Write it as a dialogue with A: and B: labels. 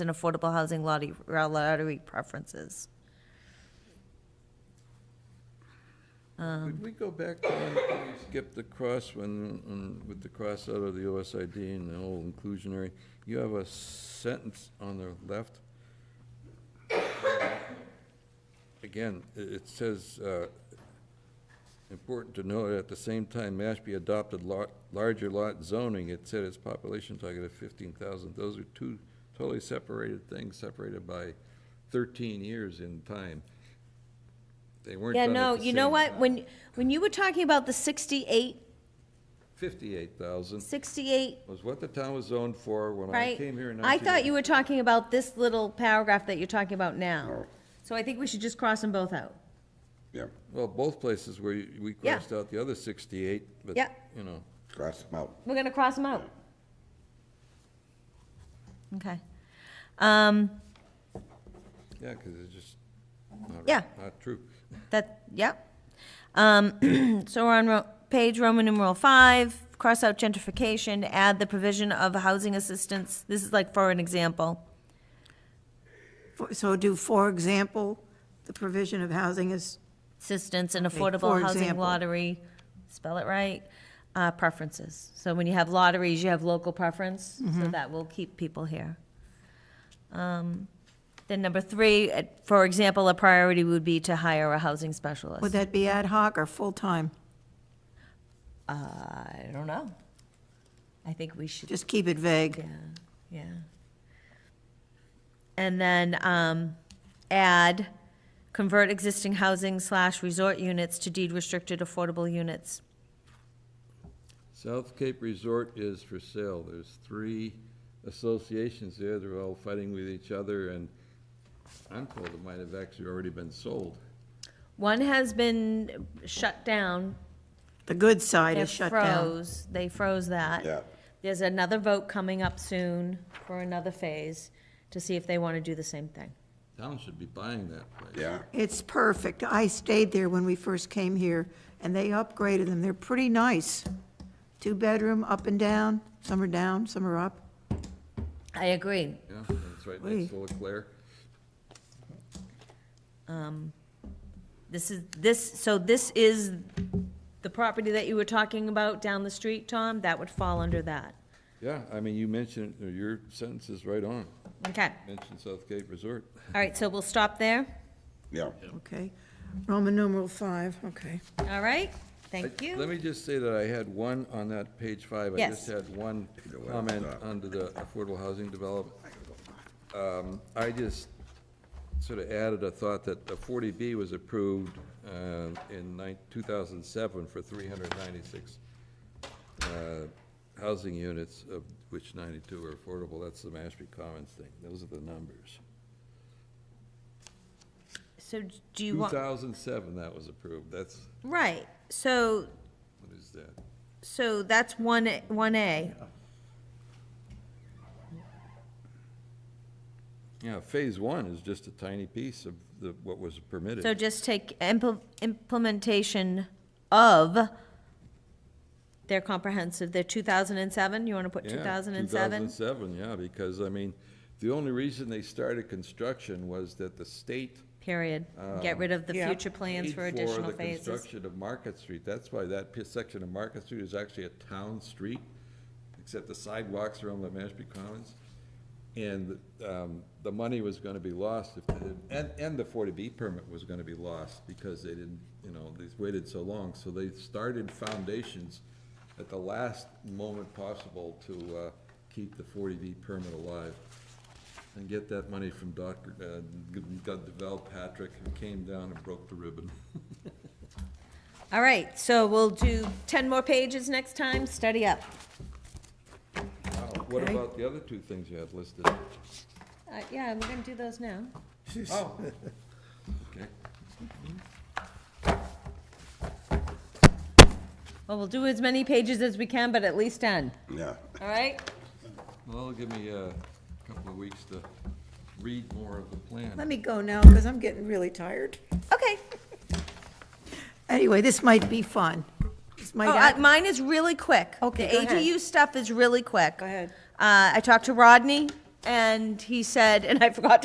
A: and affordable housing lottery, lottery preferences.
B: Could we go back to when we skipped the cross, when, when- with the cross out of the OSID and the whole inclusionary? You have a sentence on the left. Again, i- it says, uh, important to note, at the same time Mashpee adopted lot, larger lot zoning, it set its population target of fifteen thousand. Those are two totally separated things, separated by thirteen years in time. They weren't
A: Yeah,
B: done at
A: no,
B: the
A: you know
B: same
A: what,
B: time.
A: when, when you were talking about the 68,
B: 58,000
A: 68
B: was what the town was zoned for when I
A: right?
B: came here in
A: I thought you
B: 19...
A: were talking about this little paragraph that you're talking about now. So I think we should just cross them both out.
C: Yeah,
B: Well, both places where you- we
A: Yeah.
B: crossed out the other 68, but,
A: Yeah.
B: you know,
C: cross them out.
A: We're gonna cross them out. Okay. Um,
B: yeah, because it's just not, right-
A: Yeah.
B: not true.
A: that, yep. Um, so we're on ro- page Roman numeral five, cross out gentrification, add the provision of housing assistance. This is like for an example.
D: For- So do, for example, the provision of housing is,
A: assistance and
D: for
A: affordable housing
D: example.
A: lottery, spell it right, uh, preferences. So when you have lotteries, you have local preference, so
D: Mm-hmm.
A: that will keep people here. Um, Then number three, uh, for example, a priority would be to hire a housing specialist.
D: would that be ad hoc or full-time?
A: I don't know. I think we should,
D: Just keep it vague.
A: yeah, yeah. And then, um, add, convert existing housing slash resort units to deed restricted affordable units.
B: South Cape Resort is for sale. There's three associations there. They're all fighting with each other, and I'm told it might have actually already been sold.
A: One has been shut down.
D: The good side
A: They
D: is shut down.
A: froze. They froze that.
C: Yeah.
A: There's another vote coming up soon for another phase to see if they want to do the same thing.
B: Town should be buying that place.
C: Yeah,
D: It's perfect. I stayed there when we first came here, and they upgraded them. They're pretty nice. Two-bedroom, up and down, some are down, some are up.
A: I agree.
B: Yeah, and it's right next to Leclerc.
A: This is, this, so this is the property that you were talking about down the street, Tom? That would fall under that.
B: Yeah, I mean, you mentioned, your sentence is right on.
A: Okay.
B: Mentioned South Cape Resort.
A: All right, so we'll stop there.
C: yeah.
D: Okay. Roman numeral five, okay.
A: All right? Thank
B: I- Let
A: you.
B: me just say that I had one on that page five. I just
A: Yes.
B: had one
C: Either way,
B: comment
C: it's up.
B: under the affordable housing development. Um, I just sort of added a thought that the 40B was approved uh, in nine- 2007 for 396 uh, housing units, of which 92 are affordable. That's the Mashpee Commons thing. Those are the numbers.
A: So do you want,
B: 2007, that was approved. That's,
A: right, so
B: what is that?
A: So that's one, one A.
B: Yeah, phase one is just a tiny piece of the, what was permitted.
A: So just take impl- implementation of their comprehensive, their two thousand and seven, you wanna put
B: Yeah,
A: two thousand and seven?
B: 2007, yeah, because, I mean, the only reason they started construction was that the state
A: Period. Get rid of the
D: Yeah.
A: future plans
B: paid
A: for
B: for
A: additional
B: the
A: phases.
B: construction of Market Street. That's why that pi- section of Market Street is actually a town street, except the sidewalks are on the Mashpee Commons. And um, the money was going to be lost, if and, and the 40B permit was going to be lost because they didn't, you know, they waited so long. So they started foundations at the last moment possible to uh, keep the 40B permit alive and get that money from Dr., uh, G- G- Deval Patrick, who came down and broke the ribbon.
A: All right, so we'll do ten more pages next time, study up.
B: What
D: Okay.
B: about the other two things you had listed?
A: Uh, yeah, we're gonna do those now.
B: Oh. Okay.
A: Well, we'll do as many pages as we can, but at least ten,
C: Yeah,
A: all right?
B: Well, give me uh, a couple of weeks to read more of the
D: Let
B: plan.
D: me go now, because I'm getting really tired.
A: Okay.
D: Anyway, this might be fun. This might
A: Oh,
D: act-
A: uh, mine is really quick.
D: Okay,
A: The
D: go ahead.
A: ADU stuff is really quick.
D: Go ahead.
A: Uh, I talked to Rodney. And he said, and I forgot